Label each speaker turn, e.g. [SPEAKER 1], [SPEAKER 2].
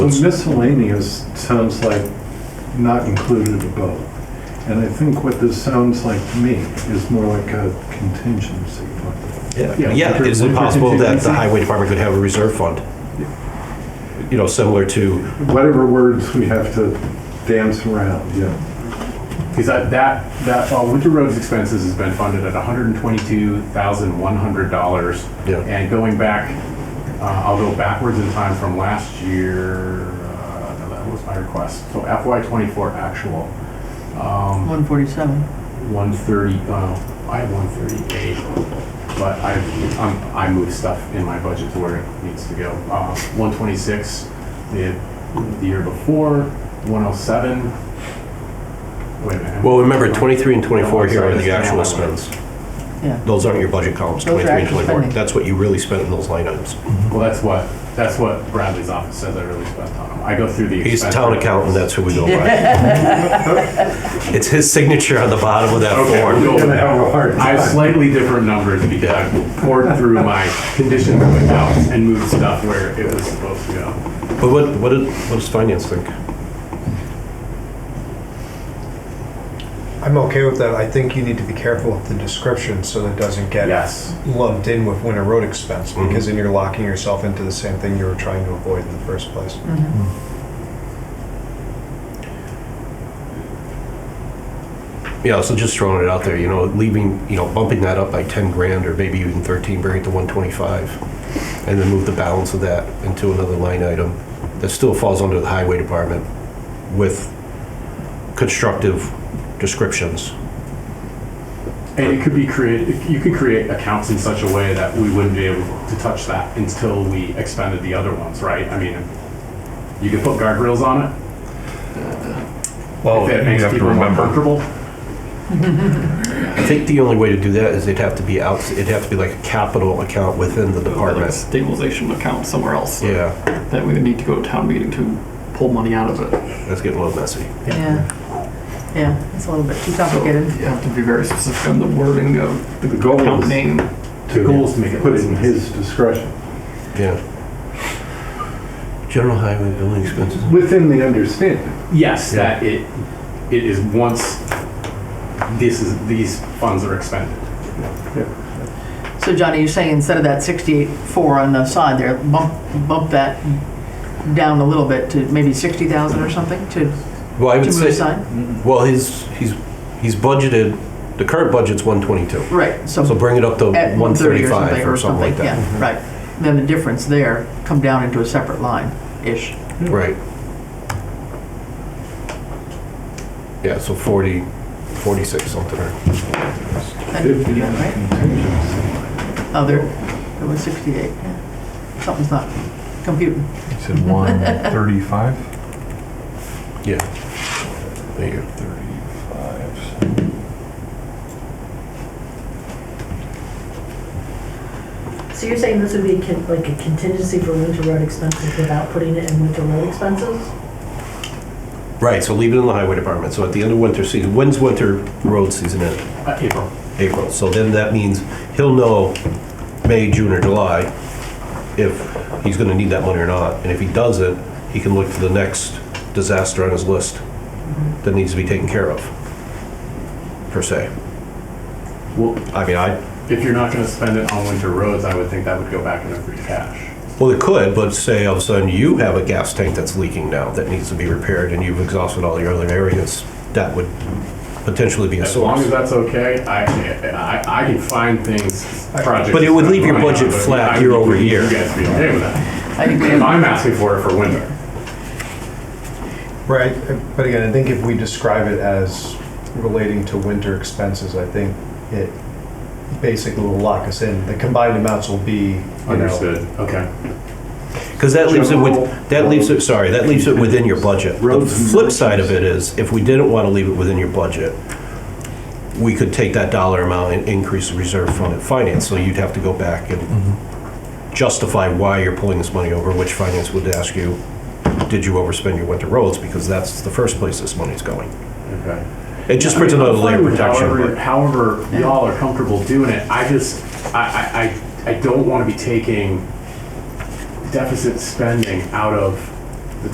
[SPEAKER 1] Miscellaneous sounds like not included above. And I think what this sounds like to me is more like a contingency fund. Yeah.
[SPEAKER 2] Yeah, is it possible that the highway department could have a reserve fund? You know, similar to,
[SPEAKER 1] Whatever words we have to dance around, yeah.
[SPEAKER 3] Because that, that, that, uh, winter roads expenses has been funded at hundred and twenty-two thousand, one hundred dollars.
[SPEAKER 2] Yeah.
[SPEAKER 3] And going back, uh, I'll go backwards in time from last year, uh, no, that was my request. So FY twenty-four actual,
[SPEAKER 4] 147.
[SPEAKER 3] one thirty, uh, I have one thirty-eight. But I, I'm, I move stuff in my budget to where it needs to go. Uh, one twenty-six, the, the year before, one oh seven. Wait a minute.
[SPEAKER 2] well, remember, 23 and 24 here are
[SPEAKER 3] Sorry,
[SPEAKER 2] the
[SPEAKER 3] that's
[SPEAKER 2] actual
[SPEAKER 3] down.
[SPEAKER 2] spends.
[SPEAKER 4] Yeah.
[SPEAKER 2] Those aren't your budget columns,
[SPEAKER 4] Those are
[SPEAKER 2] 23 and
[SPEAKER 4] actual
[SPEAKER 2] 24.
[SPEAKER 4] spending.
[SPEAKER 2] That's what you really spent in those line items.
[SPEAKER 3] Well, that's what, that's what Bradley's office says I really spent on him. I go through the.
[SPEAKER 2] He's a
[SPEAKER 3] expense
[SPEAKER 2] town
[SPEAKER 3] reports.
[SPEAKER 2] accountant, that's who we go by. It's his signature on the bottom of that
[SPEAKER 3] Okay,
[SPEAKER 2] form.
[SPEAKER 3] we'll go
[SPEAKER 1] We're
[SPEAKER 3] with
[SPEAKER 1] gonna have a
[SPEAKER 3] that.
[SPEAKER 1] hard
[SPEAKER 3] I have
[SPEAKER 1] time.
[SPEAKER 3] slightly different numbers because I poured through my conditions and accounts and moved stuff where it was supposed to go.
[SPEAKER 2] But what, what did- what does finance think?
[SPEAKER 5] I'm okay with that. I think you need to be careful with the description so that it doesn't get
[SPEAKER 3] Yes.
[SPEAKER 5] lumped in with winter road expense
[SPEAKER 6] Mm-hmm.
[SPEAKER 5] because then you're locking yourself into the same thing you were trying to avoid in the first place.
[SPEAKER 2] Yeah, so just throwing it out there, you know, leaving, you know, bumping that up by 10 grand or maybe even 13, bring it to 125, and then move the balance of that into another line item that still falls under the highway department with constructive descriptions.
[SPEAKER 3] And it could be created, you could create accounts in such a way that we wouldn't be able to touch that until we expended the other ones, right? I mean, you could put guardrails on it.
[SPEAKER 6] Well,
[SPEAKER 5] Oh,
[SPEAKER 3] if that
[SPEAKER 6] you
[SPEAKER 3] makes
[SPEAKER 6] have to
[SPEAKER 3] people more
[SPEAKER 6] remember,
[SPEAKER 3] Comfortable.
[SPEAKER 2] I think the only way to do that is it'd have to be out, it'd have to be like a capital account within the
[SPEAKER 6] like a
[SPEAKER 2] department.
[SPEAKER 6] stabilization account somewhere else.
[SPEAKER 2] Yeah,
[SPEAKER 6] That we would need to go to town meeting to pull money out of it.
[SPEAKER 2] that's getting a little messy.
[SPEAKER 4] Yeah. Yeah, it's a little bit too
[SPEAKER 6] So
[SPEAKER 4] complicated.
[SPEAKER 6] You have to be very specific on the wording of the
[SPEAKER 1] The goal
[SPEAKER 6] account
[SPEAKER 1] is-
[SPEAKER 6] name.
[SPEAKER 3] The goal is to make it
[SPEAKER 1] Put it in
[SPEAKER 3] business.
[SPEAKER 1] his discretion,
[SPEAKER 2] Yeah. General highway building expenses.
[SPEAKER 1] within the understanding.
[SPEAKER 3] Yes,
[SPEAKER 2] Yeah.
[SPEAKER 3] that it, it is once this is, these funds are expended.
[SPEAKER 4] So Johnny, you're saying instead of that 68.4 on the side there, bump, bump that down a little bit to maybe 60,000 or something to, to
[SPEAKER 2] Well, I would
[SPEAKER 4] move
[SPEAKER 2] say,
[SPEAKER 4] aside?
[SPEAKER 2] Well, he's, he's, he's budgeted, the current budget's 122.
[SPEAKER 4] Right, so
[SPEAKER 2] So bring it up to
[SPEAKER 4] at 130 or
[SPEAKER 2] 135
[SPEAKER 4] something,
[SPEAKER 2] or something like that. Mm-hmm.
[SPEAKER 4] Yeah, right. Then the difference there come down into a separate line-ish.
[SPEAKER 2] Right. Yeah, so 40, 46 something. or-
[SPEAKER 4] That could be done, right? Oh, there, there was 68, yeah. Something's not computing.
[SPEAKER 7] You said one thirty-five?
[SPEAKER 2] Yeah. There you go.
[SPEAKER 7] Thirty-five.
[SPEAKER 8] So you're saying this would be con- like a contingency for winter road expenses without putting it in winter road expenses?
[SPEAKER 2] Right, so leave it in the highway department. So at the end of winter season, when's winter road season end?
[SPEAKER 3] Uh, April.
[SPEAKER 2] April. So then that means he'll know May, June, or July if he's gonna need that money or not. And if he doesn't, he can look for the next disaster on his list that needs to be taken care of, per se.
[SPEAKER 3] Well,
[SPEAKER 2] I mean, I,
[SPEAKER 3] if you're not gonna spend it on winter roads, I would think that would go back into free cash.
[SPEAKER 2] well, it could, but say all of a sudden you have a gas tank that's leaking now that needs to be repaired and you've exhausted all your other areas, that would potentially be a
[SPEAKER 3] As long as
[SPEAKER 2] source.
[SPEAKER 3] that's okay, I, I, I can find things, projects.
[SPEAKER 2] But it would leave your
[SPEAKER 3] that I'm
[SPEAKER 2] budget
[SPEAKER 3] running on, but
[SPEAKER 2] flat
[SPEAKER 3] I
[SPEAKER 2] year
[SPEAKER 3] would-
[SPEAKER 2] over year.
[SPEAKER 3] You guys be okay with that.
[SPEAKER 4] I think we
[SPEAKER 3] If I'm asking for it for winter.
[SPEAKER 5] Right, uh, but again, I think if we describe it as relating to winter expenses, I think it basically will lock us in. The combined amounts will be, you know,
[SPEAKER 3] Understood, okay.
[SPEAKER 2] Because that leaves it
[SPEAKER 1] General
[SPEAKER 2] with, that leaves it, sorry, that leaves it within your budget. The
[SPEAKER 1] Roads and
[SPEAKER 2] flip side of it is, if we didn't want to leave it within your budget, we could take that dollar amount and increase the reserve fund at finance, so you'd have to go back and
[SPEAKER 1] Mm-hmm.
[SPEAKER 2] justify why you're pulling this money over, which finance would ask you, did you overspend your winter roads? Because that's the first place this money's going.
[SPEAKER 3] Okay.
[SPEAKER 2] It just puts
[SPEAKER 3] I mean,
[SPEAKER 2] another
[SPEAKER 3] I'm
[SPEAKER 2] layer
[SPEAKER 3] fine
[SPEAKER 2] of
[SPEAKER 3] with However,
[SPEAKER 2] protection.
[SPEAKER 3] however y'all are comfortable doing it, I just, I, I, I, I don't want to be taking deficit spending out of